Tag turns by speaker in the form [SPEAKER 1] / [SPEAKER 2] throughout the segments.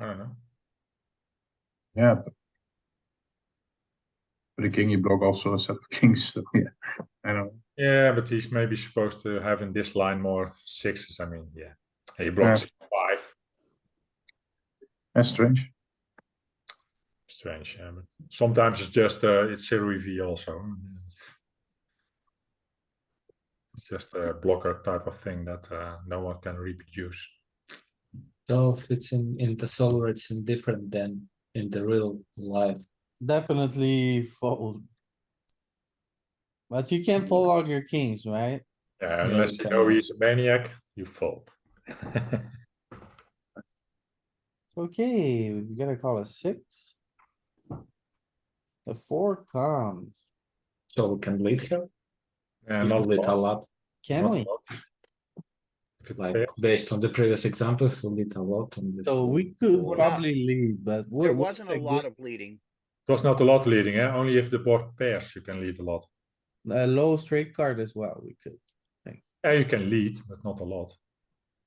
[SPEAKER 1] I don't know.
[SPEAKER 2] Yeah. but- But a king you block also a set of kings, so yeah, I don't. know.
[SPEAKER 1] Yeah, but he's maybe supposed to have in this line more sixes. I mean, yeah, he blocks five.
[SPEAKER 2] That's strange.
[SPEAKER 1] Strange. Yeah, but sometimes it's just uh, it's zero EV also. It's just a blocker type of thing that uh, no one can reproduce.
[SPEAKER 3] So if it's in, in the solar, it's indifferent than in the real life.
[SPEAKER 4] Definitely fold. But you can't
[SPEAKER 2] Mm-hmm.
[SPEAKER 4] fold all your kings, right?
[SPEAKER 1] Yeah, Uh, unless
[SPEAKER 3] you
[SPEAKER 1] you know
[SPEAKER 3] cannot.
[SPEAKER 1] he's a maniac, you fold.
[SPEAKER 4] Okay, we gotta call a six. The four comes,
[SPEAKER 3] So we can lead here,
[SPEAKER 1] yeah,
[SPEAKER 3] if we
[SPEAKER 1] not
[SPEAKER 3] lead a
[SPEAKER 1] fold,
[SPEAKER 3] lot,
[SPEAKER 4] can
[SPEAKER 1] not
[SPEAKER 4] we?
[SPEAKER 1] fold. If it
[SPEAKER 3] like
[SPEAKER 1] fails,
[SPEAKER 3] based on the previous examples, we lead a lot on this.
[SPEAKER 4] So we could probably lead, but. what-
[SPEAKER 5] There
[SPEAKER 4] what's
[SPEAKER 5] wasn't a lot of bleeding.
[SPEAKER 1] it was not a lot leading, eh? only if the board pairs you can lead a lot.
[SPEAKER 4] good- A low straight card as well, we could.
[SPEAKER 1] Yeah, you can lead, but not a lot.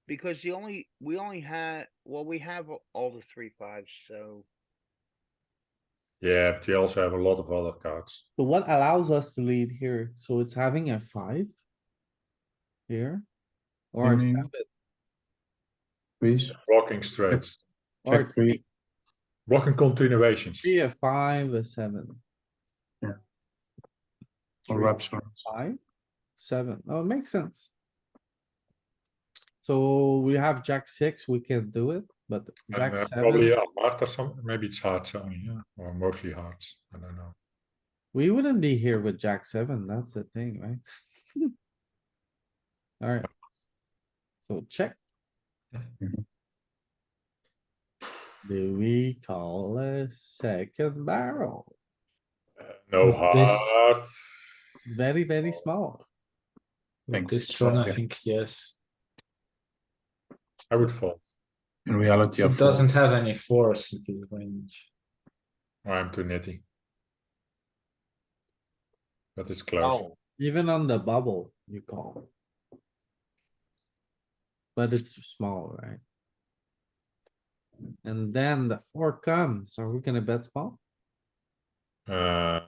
[SPEAKER 5] Because the only, we only had, well, we have a- all the three fives, so.
[SPEAKER 1] Yeah, but you also have a lot of other cards.
[SPEAKER 4] So what allows us to lead here? So it's having a five? Here? Or a
[SPEAKER 2] mean-
[SPEAKER 4] seven,
[SPEAKER 2] Please,
[SPEAKER 1] Blocking straights,
[SPEAKER 4] or
[SPEAKER 2] check three.
[SPEAKER 1] blocking continuations.
[SPEAKER 4] three, a five, a seven,
[SPEAKER 2] or
[SPEAKER 4] three.
[SPEAKER 2] wraps around.
[SPEAKER 4] five, seven. Oh, it makes sense. So we have jack six, we can do it, but jack
[SPEAKER 1] And, uh, Probably
[SPEAKER 4] seven,
[SPEAKER 1] a heart or something, maybe it's hearts only, yeah, or mostly hearts, I don't know.
[SPEAKER 4] we wouldn't be here with jack seven, that's the thing, right? Alright. So check.
[SPEAKER 2] Mhm.
[SPEAKER 4] Do we call a second barrel?
[SPEAKER 1] Uh, No
[SPEAKER 3] But this-
[SPEAKER 1] heart.
[SPEAKER 4] It's very,
[SPEAKER 1] Oh.
[SPEAKER 4] very small.
[SPEAKER 2] Thank
[SPEAKER 3] This
[SPEAKER 2] you.
[SPEAKER 3] turn, I
[SPEAKER 2] Yeah.
[SPEAKER 3] think, yes,
[SPEAKER 1] I would fold,
[SPEAKER 2] In reality, I
[SPEAKER 3] it
[SPEAKER 2] fold.
[SPEAKER 3] doesn't have any force in his range.
[SPEAKER 1] or I'm too nitty. But it's close,
[SPEAKER 5] Oh,
[SPEAKER 4] Even on the bubble, you call. But it's small, right? And then the four comes, are we gonna bet small?
[SPEAKER 1] uh,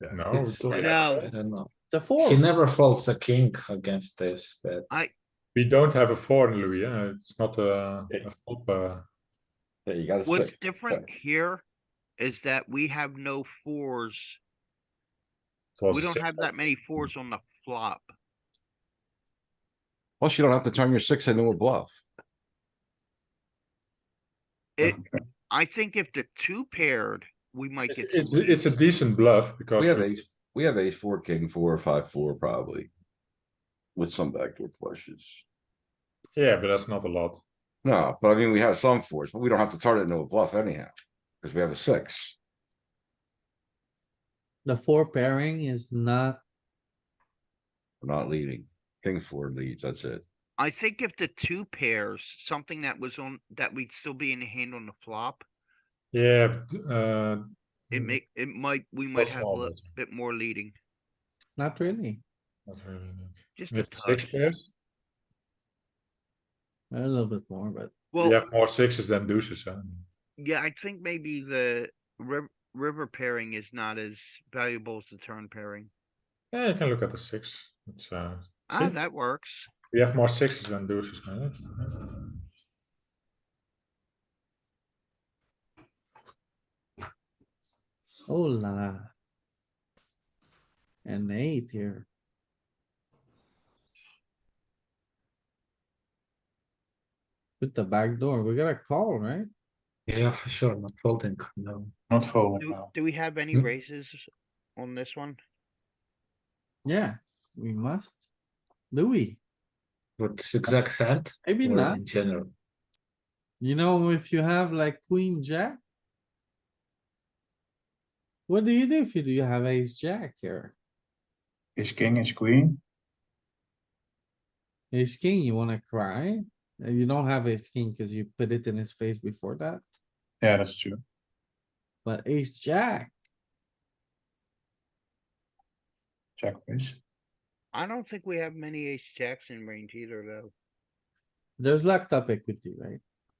[SPEAKER 1] no.
[SPEAKER 3] It's
[SPEAKER 1] we-
[SPEAKER 3] like,
[SPEAKER 5] No.
[SPEAKER 3] I don't know,
[SPEAKER 4] The four,
[SPEAKER 3] he never folds a king against this, but
[SPEAKER 1] We don't have a four in Louis, yeah, it's not a,
[SPEAKER 6] Yeah.
[SPEAKER 1] a flop, uh,
[SPEAKER 6] Yeah, you gotta
[SPEAKER 5] what's
[SPEAKER 6] say,
[SPEAKER 5] different here is that we have no fours.
[SPEAKER 1] it was
[SPEAKER 5] We
[SPEAKER 1] a
[SPEAKER 5] don't
[SPEAKER 1] six.
[SPEAKER 5] have that many fours on the flop.
[SPEAKER 6] plus you don't have to turn your six into a bluff.
[SPEAKER 1] Uh-huh.
[SPEAKER 5] It, I think if the two paired, we might
[SPEAKER 1] It's,
[SPEAKER 5] get.
[SPEAKER 1] it's,
[SPEAKER 5] some
[SPEAKER 1] it's a decent bluff, because.
[SPEAKER 6] We have
[SPEAKER 1] you-
[SPEAKER 6] ace, we have ace four, king four, five, four, probably. With some backdoor flushes.
[SPEAKER 1] Yeah, but that's not a lot.
[SPEAKER 6] No, but I mean, we have some fours, but we don't have to turn it into a bluff anyhow, because we have a six.
[SPEAKER 4] the four pairing is not,
[SPEAKER 6] We're not leading. King four leads, that's it.
[SPEAKER 5] I think if the two pairs, something that was on, that we'd still be in the hand on the flop,
[SPEAKER 1] Yeah, but, uh.
[SPEAKER 5] it
[SPEAKER 1] mm,
[SPEAKER 5] may, it might, we might
[SPEAKER 1] Plus
[SPEAKER 5] have a little
[SPEAKER 1] always.
[SPEAKER 5] bit more leading.
[SPEAKER 4] not really.
[SPEAKER 1] Not really, not.
[SPEAKER 5] Just
[SPEAKER 1] And
[SPEAKER 5] a
[SPEAKER 1] if it's six
[SPEAKER 5] touch.
[SPEAKER 1] pairs,
[SPEAKER 4] A little bit more, but
[SPEAKER 1] you
[SPEAKER 5] Well,
[SPEAKER 1] have more sixes than deuces, huh?
[SPEAKER 5] yeah, I think maybe the river, river pairing is not as valuable as the turn pairing.
[SPEAKER 1] Yeah, you can look at the six, it's, uh,
[SPEAKER 5] Ah,
[SPEAKER 1] see,
[SPEAKER 5] that works.
[SPEAKER 1] we have more sixes than deuces, man.
[SPEAKER 4] oh la. la. An eight here. With the back door, we gotta call, right?
[SPEAKER 3] yeah, for sure, not folding, no.
[SPEAKER 2] Not uh, folding
[SPEAKER 5] Do,
[SPEAKER 2] now.
[SPEAKER 5] do we have any
[SPEAKER 3] Mm.
[SPEAKER 5] raises on this one?
[SPEAKER 4] Yeah, we must. Louis,
[SPEAKER 3] But this exact hand,
[SPEAKER 4] maybe
[SPEAKER 3] or
[SPEAKER 4] not.
[SPEAKER 3] in general,
[SPEAKER 4] You know, if you have like queen jack. What do you do if you do have ace jack here?
[SPEAKER 2] Is king, is queen,
[SPEAKER 4] Ace king, you wanna cry? Uh, You don't have ace king cuz you put it in his face before that,
[SPEAKER 2] yeah, that's true.
[SPEAKER 4] but ace jack,
[SPEAKER 2] Check please.
[SPEAKER 5] I don't think we have many ace jacks in range either, though.
[SPEAKER 4] there's laptop equity, right?